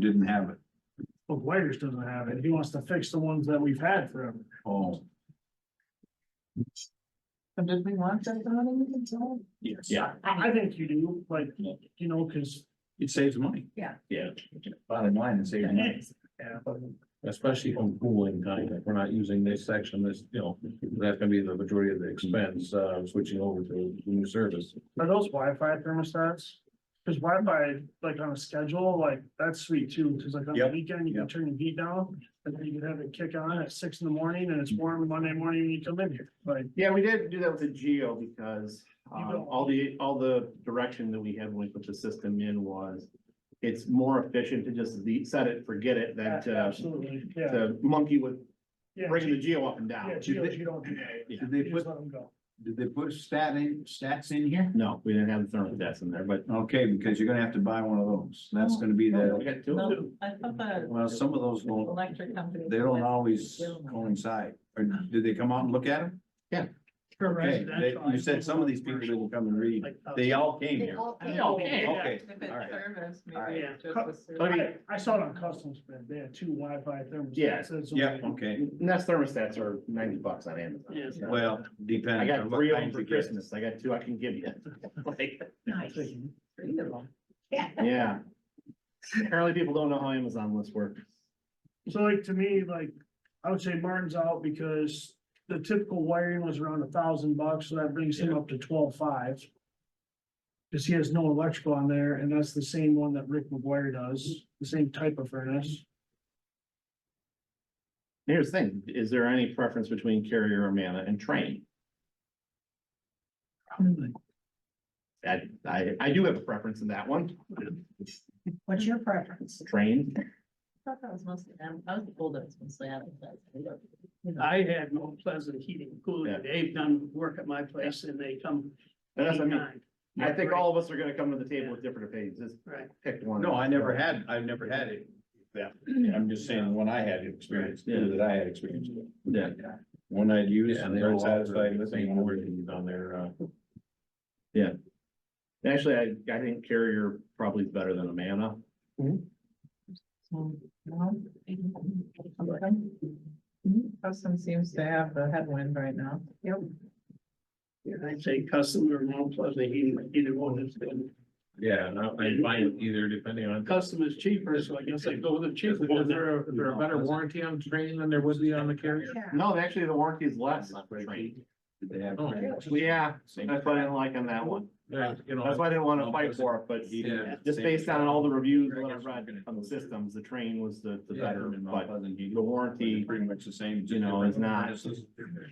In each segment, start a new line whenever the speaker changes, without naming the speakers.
didn't have it.
Well, Whiters doesn't have it. He wants to fix the ones that we've had forever.
Oh,
But did we want that done in the control?
yes.
Yeah.
I, I think you do, like, you know, cause.
It saves money.
Yeah.
Yeah.
Bottom line, it saves money.
Yeah,
Especially on cooling time, if we're not using this section, this, you know, that's gonna be the majority of the expense, uh, switching over to new service.
Are those Wi-Fi thermostats? Cause Wi-Fi, like on a schedule, like that's sweet too, cause like on the
Yep,
weekend, you can
yep.
turn the heat down. And then you can have it kick on at six in the morning and it's warm Monday morning when you come in here, like,
Yeah, we did do that with the Geo because
You
um
don't-
all the, all the direction that we had when we put the system in was. It's more efficient to just le- set it, forget it than
uh,
to,
absolutely, yeah.
to monkey with
Yeah,
bringing the
G-
Geo up and
Yeah,
down.
Geos, you don't do that.
Did they
You
put,
just let them go.
did they put stat in, stats in here?
No, we didn't have the thermostats in there, but uh,
Okay, because you're gonna have to buy one of those. That's gonna be
we
the,
got two.
No, I thought the
well, some of those don't,
electric company.
they don't always coincide. Or did they come out and look at them?
For
Okay, they,
residential, I
you said
think
some of these people
commercial,
didn't come and read.
like, uh,
They all came here.
They
all
came.
Okay,
If it's
all right.
service,
All
maybe
right.
it's just a service.
I mean,
I, I saw it on customs, but they had two Wi-Fi thermostats.
Yeah,
That's what
Yeah,
they-
okay.
And that's thermostats are ninety bucks on Amazon.
Yes.
Well,
I
depends
got
on what
three of them
kinds
for
you get.
Christmas. I got two I can give you. Like,
Nice. Three of them. Yeah.
yeah. Apparently people don't know how Amazon lists work.
So like to me, like, I would say Martin's out because the typical wiring was around a thousand bucks, so that brings him up to twelve five. Cause he has no electrical on there and that's the same one that Rick McGuire does, the same type of furnace.
Here's the thing, is there any preference between carrier Amana and train? I, I, I do have a preference in that one,
What's your preference?
train.
I thought that was mostly, Am- I was told that was mostly advertising.
I had no pleasant heating and
Yeah.
cooling. They've done work at my place and they come
And that's, I mean,
anytime.
I think all of us are gonna come to the table with different opinions, just
Right.
pick one.
No, I never had, I've never had it. That, I'm just saying, when I had experience,
Yeah.
that I had experience with.
Yeah.
When I'd use and
Yeah, and
they
they're
were
satisfied
satisfied
with
with
the
me.
same wording on their, uh,
Actually, I, I think carrier probably is better than Amana.
So, no? Mhm. Custom seems to have the headwind right now. Yep.
And I'd say custom or no pleasant heating, either one is good.
yeah, and I I find either depending on.
Custom is cheaper, so I guess I go with the cheaper.
Is there, a- is there a better warranty on train than there would be on the carrier?
Yeah.
No, actually, the warranty is less on train.
Did they have-
Oh.
Yeah,
Same-
that's what I didn't like on that one.
Yeah, you know.
That's why I didn't wanna fight for it, but
Yeah.
just based on all the reviews that I read on the systems, the train was the, the
Yeah.
better, but the
The
warranty.
Pretty much the same.
you know, it's not-
Did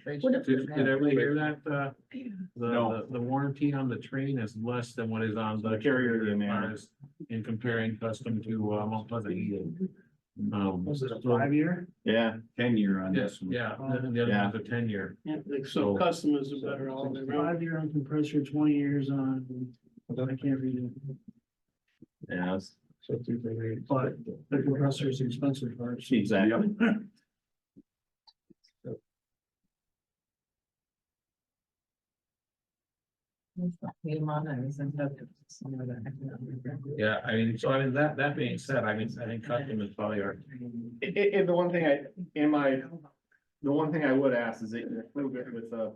did everybody hear that, uh, the-
No.
the, the warranty on the train is less than what is on the
The carrier,
carrier
yeah,
as
man.
far as in comparing custom to, uh, Mount Pleasant Eagle. Um,
Was it a
so-
five year?
Yeah,
Ten year on
Yes,
this one.
yeah, and then the other one's a ten year.
Yeah, like,
So-
So custom is a better all the way around.
Five year on compressor, twenty years on, I can't read it,
yeah, it's-
but the compressor is expensive part.
exactly.
Hey, Mona, isn't that some of the economic-
Yeah, I mean, so I mean, that, that being said, I mean, I think custom is probably our,
It, it, and the one thing I, in my, the one thing I would ask is that you include it with a,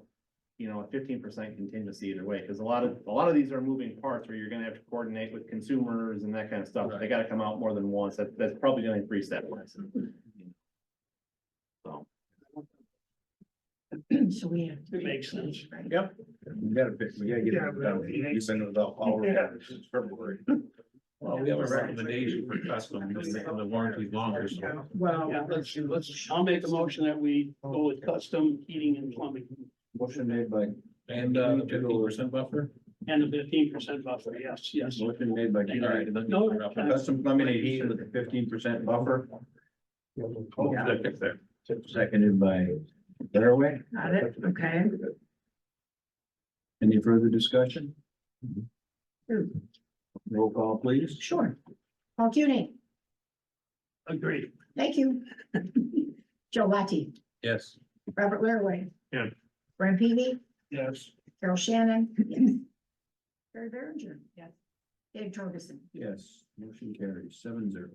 you know, a fifteen percent contingency either way, because a lot of, a lot of these are moving parts where you're gonna have to coordinate with consumers and that kind of stuff. They gotta come out more than once. That, that's probably gonna increase that price. So,
So we have.
It makes sense.
Yep. We gotta, pick- we gotta get
Yeah,
it
but
done.
it
You've been without power since February.
well, we have a recommendation for custom, just making the warranties longer, so.
Well,
Yeah, let's, see, let's, I'll make a motion that we go with custom heating and plumbing
Motion made by,
And, uh, fifty percent buffer?
and a fifteen percent buffer. Yes, yes.
motion made by
All right,
Gary.
then-
No,
Custom plumbing and heating with a fifteen percent buffer.
Yeah, fix that.
Seconded by Laraway.
Got it, okay.
Any further discussion?
Hmm.
Roll call, please.
Sure. Paul Cuny,
Agreed.
thank you. Joe Latte,
Yes.
Robert Laraway.
Yeah.
Brian Peavy,
Yes.
Carol Shannon. yes. Barry Berenger. Yes. Dave Torgerson.
Yes, motion carries seven zero.